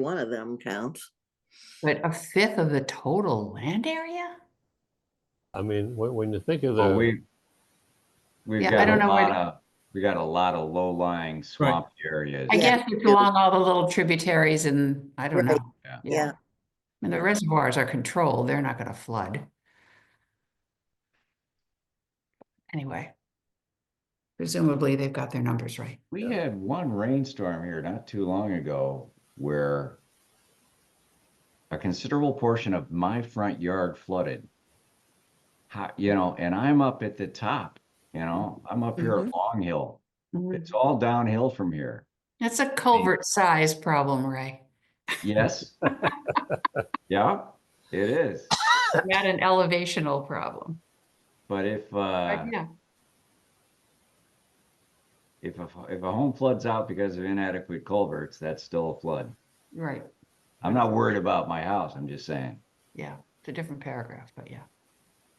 one of them counts. But a fifth of the total land area? I mean, when, when you think of Well, the, we, we've Yeah, I got a don't know where lot to- of, we got a lot of low-lying swamp areas. I Yeah. guess it's along all the little tributaries and I don't know. Right. Yeah. Yeah. And the reservoirs are controlled, they're not gonna flood. Anyway. Presumably, they've got their numbers right. We had one rainstorm here not too long ago where a considerable portion of my front yard flooded. How, you know, and I'm up at the top, you know, I'm up here Mm-hmm. at Long Hill. It's all downhill from here. It's a culvert size problem, Ray. Yes. Yeah, it is. Not an elevational problem. But if, uh, But yeah, if a, if a home floods out because of inadequate culverts, that's still a flood. right, I'm not worried about my house. I'm just saying. yeah, it's a different paragraph, but yeah.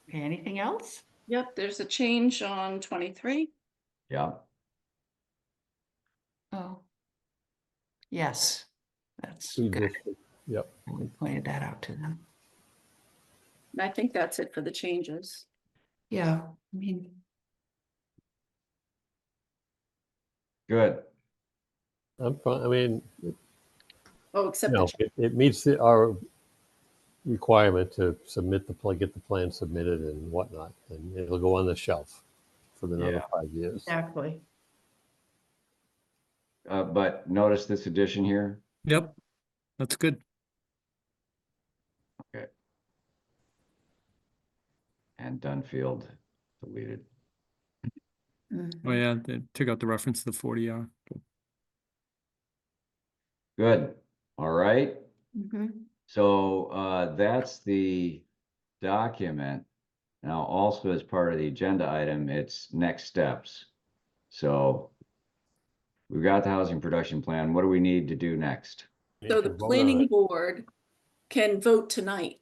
Okay, anything else? Yep, there's a change on twenty-three. Yeah. Oh. Yes, that's we good. just- We pointed that out to them. And I think that's it for the changes. Yeah, I mean, Good. I'm, fi- I mean, Oh, except, the no, ch- it, it meets the, our requirement to submit the plan, get the plan submitted and whatnot, and it'll go on the shelf for another Yeah. five years. exactly. Uh, but notice this addition here. Yep, that's good. And Dunfield deleted. Mm. Oh yeah, they took out the reference to the forty uh, R. Good. All right. Mhm. So uh, that's the document. Now, also as part of the agenda item, it's next steps. So we've got the housing production plan. What do we need to do next? so the planning board can vote tonight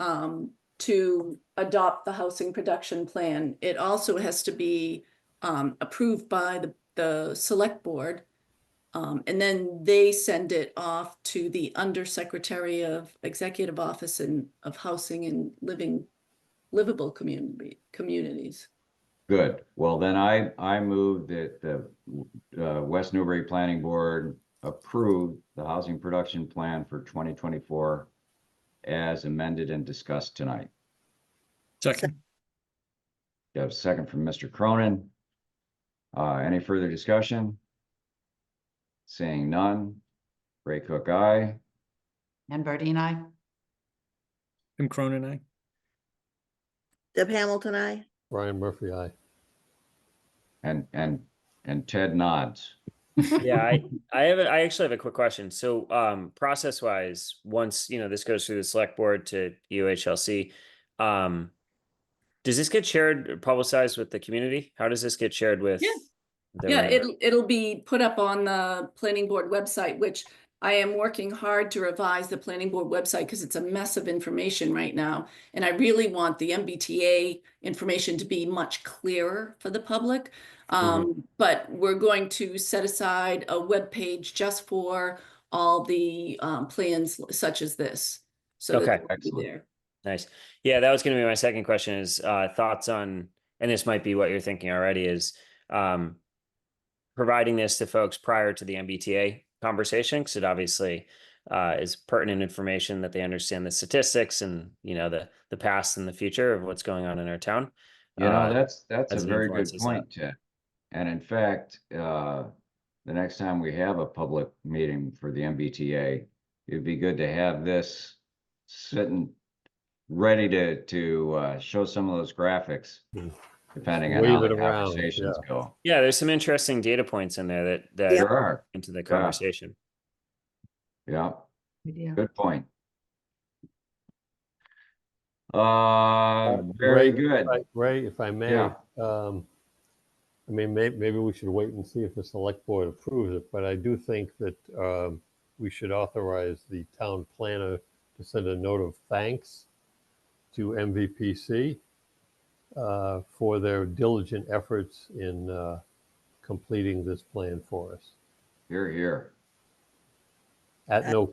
um, to adopt the housing production plan. It also has to be um, approved by the, the select board. Um, and then they send it off to the undersecretary of executive office and of housing and living, livable community, communities. Good. Well, then I, I move that the uh, West Newbury Planning Board approve the housing production plan for 2024 as amended and discussed tonight. Second, You have a second from Mr. Cronin. Uh, any further discussion? Seeing none. Ray Cook, aye. And Bardine, I, Tim Cronin, eh? I. Deb Hamilton, I. Brian Murphy, I. And, and, and Ted nods. yeah i i have a, i actually have a quick question so um process wise once you know this goes through the select board to uhlc um does this get shared or publicized with the community how does this get shared with the Yeah, member? it'll, it'll be put up on the planning board website, which I am working hard to revise the planning board website because it's a mess of information right now. And I really want the MBTA information to be much clearer for the public. Um, but we're going to set aside a web page just for all the, um, plans such as this. So that Okay. they'll be Excellent. there. nice yeah that was going to be my second question is uh thoughts on and this might be what you're thinking already is um providing this to folks prior to the mbta conversation because it obviously uh, is pertinent information that they understand the statistics and you know the the past and the future of what's going on in our town. You know, Uh, that's, that's a as it very good influences that. point, Ted. And in fact, uh, the next time we have a public meeting for the MBTA, it'd be good to have this sitting, ready to, to, uh, show some of those graphics, Mm. depending on Wave how the it around, conversations go. yeah, there's some interesting data points in there that that There are, into the conversation. yeah. we do. Good point. Uh, Ray, very good. if I- Ray, if I may, Yeah. um, I mean, may, maybe we should wait and see if the select board approves it, but I do think that, um, we should authorize the town planner to send a note of thanks to MVPC, uh, for their diligent efforts in, uh, completing this plan for us Here, here. at no